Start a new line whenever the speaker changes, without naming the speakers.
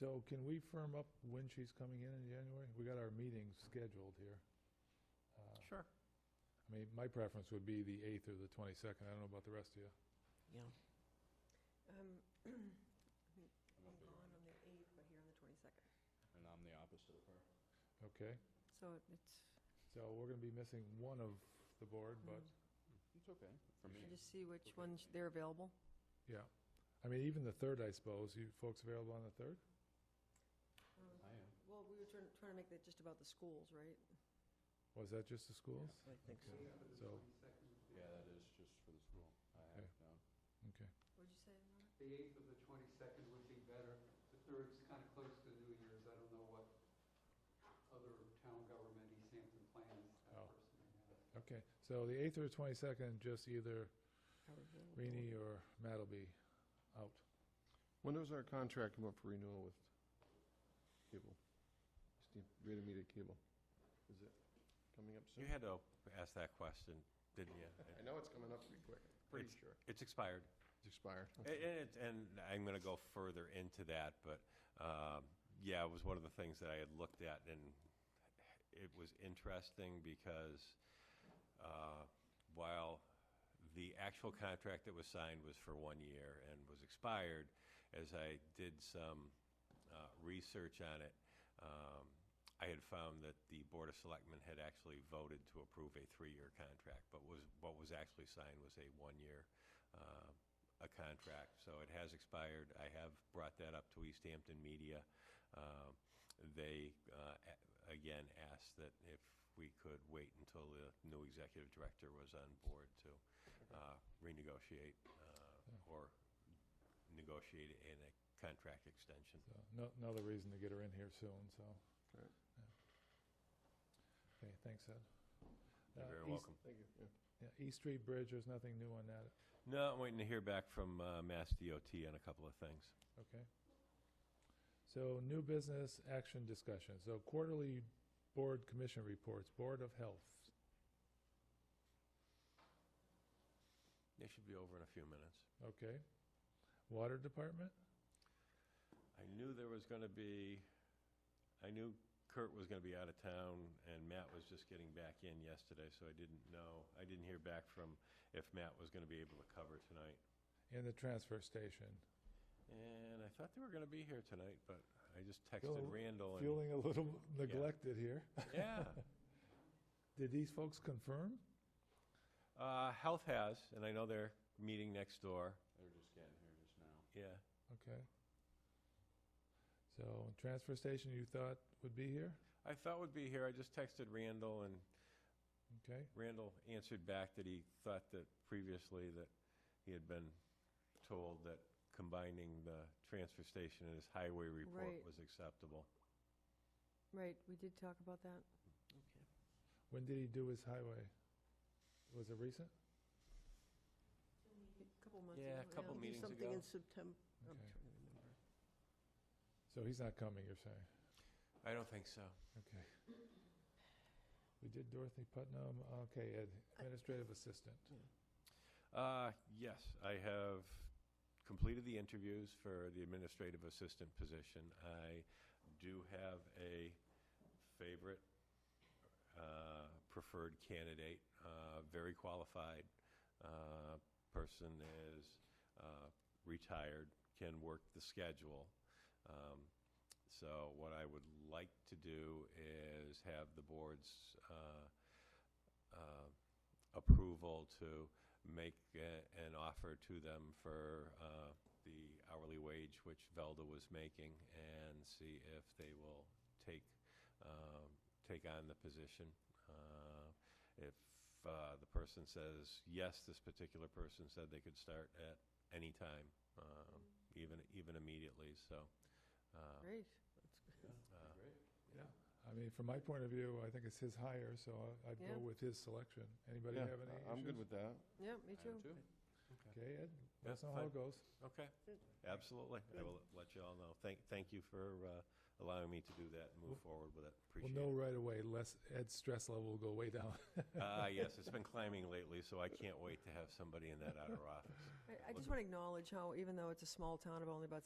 So can we firm up when she's coming in in January? We got our meetings scheduled here. Uh,
Sure.
I mean, my preference would be the 8th or the 22nd. I don't know about the rest of you.
Yeah.
Um, I'm gone on the 8th, but here on the 22nd.
And I'm the opposite of her.
Okay?
So it's,
So we're going to be missing one of the board, but,
It's okay. For me,
should just see which
Okay.
ones, they're available?
yeah. I mean, even the 3rd, I suppose. You folks available on the 3rd?
I am.
Mm-hmm. Well, we were trying, trying to make that just about the schools, right?
Was that just the schools?
I think so.
Okay. So,
Yeah, that is just for the school. I have
Okay.
no.
What'd you say, Mark?
The 8th of the 22nd would be better. The 3rd is kind of close to New Year's. I don't know what other town government East Hampton plans that
Oh.
person may have.
okay. So the 8th or the 22nd, just either
Our available-
Rini or Matt will be out.
When does our contract come up for renewal with cable? Steve, Greater Media Cable? Is it coming up soon?
You had to ask that question, didn't you?
I know it's coming up pretty quick, pretty sure.
It's expired.
It's expired.
And- And, it's- and I'm going to go further into that, but um, yeah, it was one of the things that I had looked at, and it was interesting because uh, while the actual contract that was signed was for one year and was expired, as I did some uh, research on it, um, I had found that the Board of Selectmen had actually voted to approve a three-year contract, but was, what was actually signed was a one-year, uh, a contract. So it has expired. I have brought that up to East Hampton Media. Um, They, uh, a- again, asked that if we could wait until the new executive director was on board to uh, renegotiate uh, or negotiate in a contract extension.
So no, another reason to get her in here soon, so.
Right.
Yeah. Okay, thanks, Ed.
You're
Uh,
very
East-
welcome.
Thank you. Yeah.
yeah, East Street Bridge, there's nothing new on that,
No, I'm waiting to hear back from uh, Mass DOT on a couple of things.
okay? So new business action discussion. So quarterly board commission reports, Board of Health.
They should be over in a few minutes.
Okay. Water Department?
I knew there was going to be, I knew Kurt was going to be out of town, and Matt was just getting back in yesterday, so I didn't know, I didn't hear back from if Matt was going to be able to cover tonight.
And the transfer station.
And I thought they were going to be here tonight, but I just
Feel-
texted Randall and,
Feeling a little neglected here.
yeah.
Did these folks confirm?
Uh, Health has, and I know they're meeting next door,
They're just getting here just now.
yeah.
Okay. So transfer station you thought would be here?
I thought would be here, I just texted Randall, and
Okay.
Randall answered back that he thought that previously that he had been told that combining the transfer station and his highway report
Right.
was acceptable.
Right, we did talk about that.
Okay.
When did he do his highway? Was it recent?
A couple months ago.
Yeah, a couple
We do
meetings
Something
ago.
in September, I'm
Okay.
trying to remember.
So he's not coming, you're saying?
I don't think so.
Okay. We did Dorothy Putnam, okay, Ed, administrative assistant.
Uh, yes, I have completed the interviews for the administrative assistant position. I do have a favorite uh, preferred candidate, uh, very qualified uh, person is uh, retired, can work the schedule. Um, So what I would like to do is have the board's uh, uh, approval to make a- an offer to them for uh, the hourly wage which Velda was making and see if they will take, um, take on the position. Uh, If uh, the person says, yes, this particular person said they could start at any time, um, even, even immediately, so. uh,
Great.
uh,
Great.
Yeah. I mean, from my point of view, I think it's his hire, so I- I'd
Yeah.
go with his selection. Anybody
Yeah,
have any
I-
issues?
I'm good with that.
Yeah,
I
me
am
too.
too.
Okay, Ed, let us
Yeah,
know how
fine.
it goes.
Okay, absolutely. I will let you all know. Thank, thank you for uh, allowing me to do that and move forward with it.
We'll
Appreciate it.
know right away, less, Ed's stress level will go way down.
Ah, yes, it's been climbing lately, so I can't wait to have somebody in that outer office.
I, I just want to acknowledge how, even though it's a small town of only about